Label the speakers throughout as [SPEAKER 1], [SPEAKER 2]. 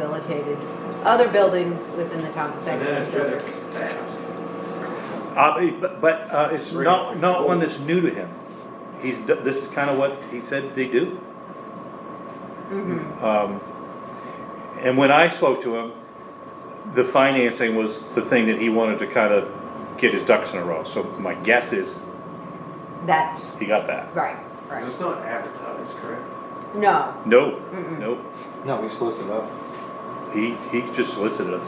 [SPEAKER 1] relocated other buildings within the
[SPEAKER 2] And then
[SPEAKER 1] compensation.
[SPEAKER 2] it's rather
[SPEAKER 1] district.
[SPEAKER 2] fast.
[SPEAKER 3] Uh, but, but, uh, it's
[SPEAKER 2] Three,
[SPEAKER 3] not,
[SPEAKER 2] six,
[SPEAKER 3] not
[SPEAKER 2] four.
[SPEAKER 3] one that's new to him. He's, d- this is kinda what he said they do.
[SPEAKER 1] Mhm.
[SPEAKER 3] Um, and when I spoke to him, the financing was the thing that he wanted to kinda get his ducks in a row, so my guess is
[SPEAKER 1] That's,
[SPEAKER 3] he got that.
[SPEAKER 1] right,
[SPEAKER 2] 'Cause
[SPEAKER 1] right.
[SPEAKER 2] It's not advertised, correct?
[SPEAKER 1] No,
[SPEAKER 3] No,
[SPEAKER 1] Mm-mm.
[SPEAKER 3] no,
[SPEAKER 4] No, we solicited up.
[SPEAKER 3] he, he just solicited us.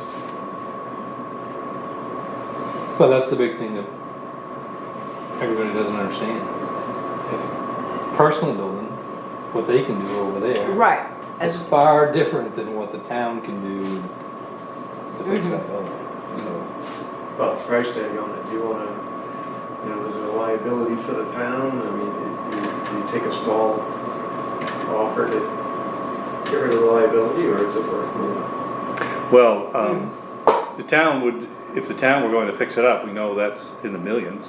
[SPEAKER 4] But that's the big thing that everybody doesn't understand. If personal building, what they can do over there
[SPEAKER 1] right.
[SPEAKER 4] is
[SPEAKER 1] As,
[SPEAKER 4] far different than what the town can do to fix
[SPEAKER 1] Mhm.
[SPEAKER 4] that building. So,
[SPEAKER 2] Well, the price tag on it, do you wanna, you know, is it a liability for the town? I mean, you, you take a small offer to get rid of the liability, or is it worth moving?
[SPEAKER 3] Well, um, the town would, if the town were going to fix it up, we know that's in the millions.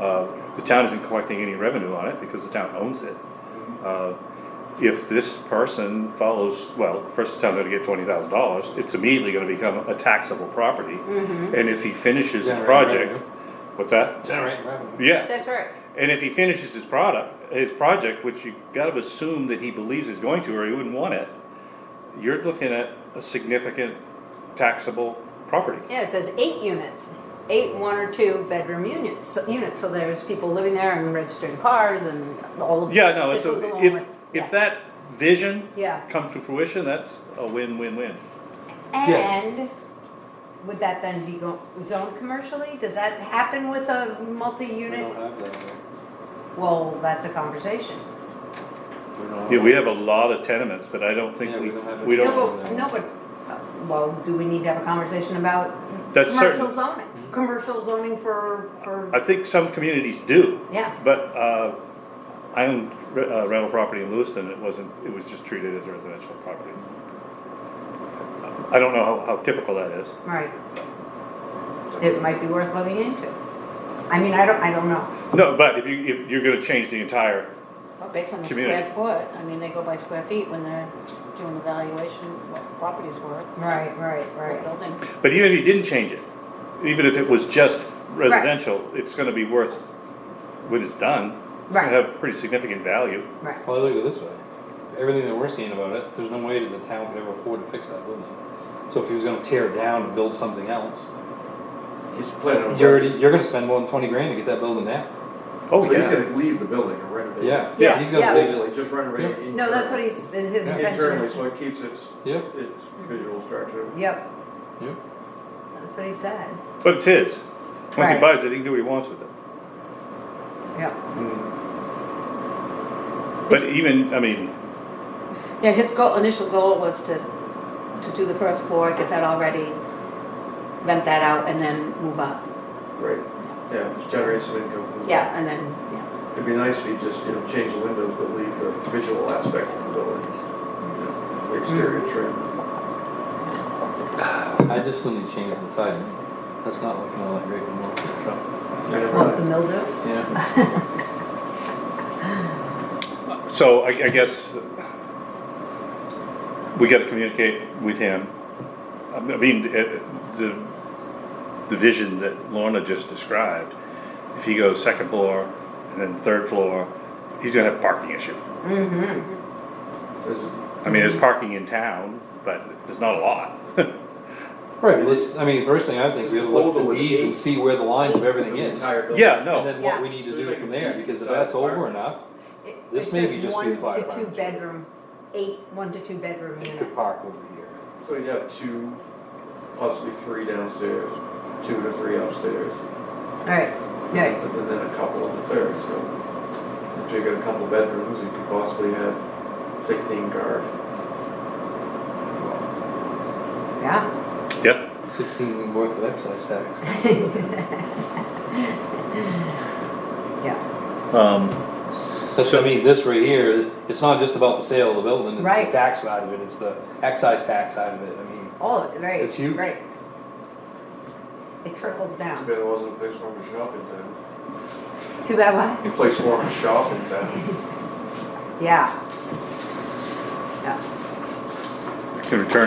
[SPEAKER 3] Uh, the town isn't collecting any revenue on it because the town owns it. Uh, If this person follows, well, first the town's gonna get twenty thousand dollars, it's immediately gonna become a taxable property.
[SPEAKER 1] Mhm.
[SPEAKER 3] And if he finishes his
[SPEAKER 4] Generating
[SPEAKER 3] project,
[SPEAKER 4] revenue.
[SPEAKER 3] what's that?
[SPEAKER 4] generating revenue.
[SPEAKER 3] Yeah,
[SPEAKER 1] that's right.
[SPEAKER 3] and if he finishes his product, his project, which you gotta assume that he believes he's going to, or he wouldn't want it, you're looking at a significant taxable property.
[SPEAKER 1] Yeah, it says eight units, eight one or two bedroom units, units, so there's people living there and registering cars and all of.
[SPEAKER 3] Yeah, no,
[SPEAKER 1] that
[SPEAKER 3] so
[SPEAKER 1] goes along
[SPEAKER 3] if,
[SPEAKER 1] with- yeah.
[SPEAKER 3] if that vision
[SPEAKER 1] Yeah,
[SPEAKER 3] comes to fruition, that's a win-win-win.
[SPEAKER 4] Yeah.
[SPEAKER 1] and would that then be go- zoned commercially? Does that happen with a
[SPEAKER 4] We don't
[SPEAKER 1] multi-unit?
[SPEAKER 4] have that. here.
[SPEAKER 1] Well, that's a conversation.
[SPEAKER 4] We don't
[SPEAKER 3] Yeah, we have a lot of tenements, but I don't think
[SPEAKER 4] Yeah,
[SPEAKER 3] we,
[SPEAKER 4] we don't have a-
[SPEAKER 3] we don't.
[SPEAKER 1] No, but, no, but, uh, well, do we need to have a conversation about
[SPEAKER 3] That's
[SPEAKER 1] commercial
[SPEAKER 3] certain. Mm-hmm.
[SPEAKER 1] zoning? Commercial zoning for, for,
[SPEAKER 3] I think some communities do,
[SPEAKER 1] yeah,
[SPEAKER 3] but, uh, I own re- uh, rental property in Lewiston, it wasn't, it was just treated as residential property. I don't know how, how typical that is.
[SPEAKER 1] right. It might be worth looking into. I mean, I don't, I don't know.
[SPEAKER 3] No, but if you, if you're gonna change the entire,
[SPEAKER 5] Well, based on the
[SPEAKER 3] Community.
[SPEAKER 5] square foot, I mean, they go by square feet when they're doing the valuation, what the property's worth,
[SPEAKER 1] Right, right,
[SPEAKER 5] what
[SPEAKER 1] right.
[SPEAKER 5] building.
[SPEAKER 3] but even if you didn't change it, even if it was just residential, it's gonna be worth, when it's done,
[SPEAKER 1] Right.
[SPEAKER 3] have pretty significant value.
[SPEAKER 1] Right,
[SPEAKER 4] Well, look at it this way. Everything that we're seeing about it, there's no way that the town could ever afford to fix that building. So if he was gonna tear it down and build something else,
[SPEAKER 2] He's planning on.
[SPEAKER 4] you're already, you're gonna spend more than twenty grand to get that building down.
[SPEAKER 3] Oh,
[SPEAKER 2] But he's
[SPEAKER 3] yeah.
[SPEAKER 2] gonna leave the building and renovate. it.
[SPEAKER 4] Yeah,
[SPEAKER 1] Yeah,
[SPEAKER 4] yeah, he's gonna
[SPEAKER 1] yeah.
[SPEAKER 4] leave it.
[SPEAKER 2] Basically, just renovate it.
[SPEAKER 1] no, that's what he's, his
[SPEAKER 4] Yeah.
[SPEAKER 1] intention
[SPEAKER 2] Internally,
[SPEAKER 1] is.
[SPEAKER 2] so it keeps its,
[SPEAKER 4] Yep,
[SPEAKER 2] its
[SPEAKER 1] Mm-hmm.
[SPEAKER 2] visual structure.
[SPEAKER 1] Yep,
[SPEAKER 4] yep.
[SPEAKER 1] that's what he said,
[SPEAKER 3] But it's his. Once he
[SPEAKER 1] Right.
[SPEAKER 3] buys it, he can do what he wants with it.
[SPEAKER 1] yeah.
[SPEAKER 2] Mm,
[SPEAKER 3] But even, I mean,
[SPEAKER 5] Yeah, his goal, initial goal was to, to do the first floor, get that all ready, rent that out, and then move up.
[SPEAKER 2] Right. Yeah, just generate some income.
[SPEAKER 5] Yeah, and then, yeah.
[SPEAKER 2] It'd be nice if you just, you know, change the windows, but leave the visual aspect of the building. you know, the Exterior trim.
[SPEAKER 4] I just need to change the siding. That's not looking all that great anymore.
[SPEAKER 2] You know,
[SPEAKER 1] Well, the
[SPEAKER 2] right.
[SPEAKER 1] mildew?
[SPEAKER 4] Yeah.
[SPEAKER 3] so I, I guess we gotta communicate with him. I mean, uh, the, the vision that Lorna just described, if he goes second floor and then third floor, he's gonna have a parking issue.
[SPEAKER 1] Mm-hmm,
[SPEAKER 2] There's a-
[SPEAKER 3] I mean, there's parking in town, but there's not a lot.
[SPEAKER 4] Right, but this, I mean, first thing I think, we gotta look at
[SPEAKER 2] Over
[SPEAKER 4] the
[SPEAKER 2] with
[SPEAKER 4] deeds
[SPEAKER 2] eight.
[SPEAKER 4] and see where the lines of
[SPEAKER 2] for
[SPEAKER 4] everything
[SPEAKER 2] the
[SPEAKER 4] is.
[SPEAKER 2] entire building.
[SPEAKER 3] Yeah,
[SPEAKER 4] And
[SPEAKER 3] no,
[SPEAKER 4] then what
[SPEAKER 1] Yeah.
[SPEAKER 4] we need
[SPEAKER 2] So
[SPEAKER 4] to
[SPEAKER 2] you
[SPEAKER 4] do
[SPEAKER 2] make
[SPEAKER 4] from
[SPEAKER 2] a
[SPEAKER 4] there,
[SPEAKER 2] decent
[SPEAKER 4] because if
[SPEAKER 2] sized
[SPEAKER 4] that's over
[SPEAKER 2] apartment.
[SPEAKER 4] enough,
[SPEAKER 1] It-
[SPEAKER 4] This
[SPEAKER 1] it
[SPEAKER 4] may
[SPEAKER 1] says
[SPEAKER 4] be just
[SPEAKER 1] one
[SPEAKER 4] be the fire
[SPEAKER 1] to
[SPEAKER 4] department.
[SPEAKER 1] Two bedroom, eight, one to two bedroom
[SPEAKER 4] it
[SPEAKER 1] units.
[SPEAKER 4] could park over here.
[SPEAKER 2] So you'd have two, possibly three downstairs, two to three upstairs,
[SPEAKER 1] Alright,
[SPEAKER 2] and
[SPEAKER 1] right,
[SPEAKER 2] then a couple in the third, so. If you got a couple bedrooms, you could possibly have sixteen cars.
[SPEAKER 1] yeah.
[SPEAKER 3] yeah.
[SPEAKER 4] Sixteen worth of excise tax.
[SPEAKER 1] Yeah,
[SPEAKER 3] Um,
[SPEAKER 4] That's, I mean, this right here, it's not just about the sale of the building, it's
[SPEAKER 1] Right.
[SPEAKER 4] the tax side of it, it's the excise tax side of it, I mean.
[SPEAKER 1] all of it, Oh, right.
[SPEAKER 4] It's huge.
[SPEAKER 1] Right. It trickles down.
[SPEAKER 2] There wasn't a place for them to shop in town.
[SPEAKER 1] Too bad what?
[SPEAKER 2] A place for them to shop in town.
[SPEAKER 1] Yeah. Yeah.
[SPEAKER 3] I can return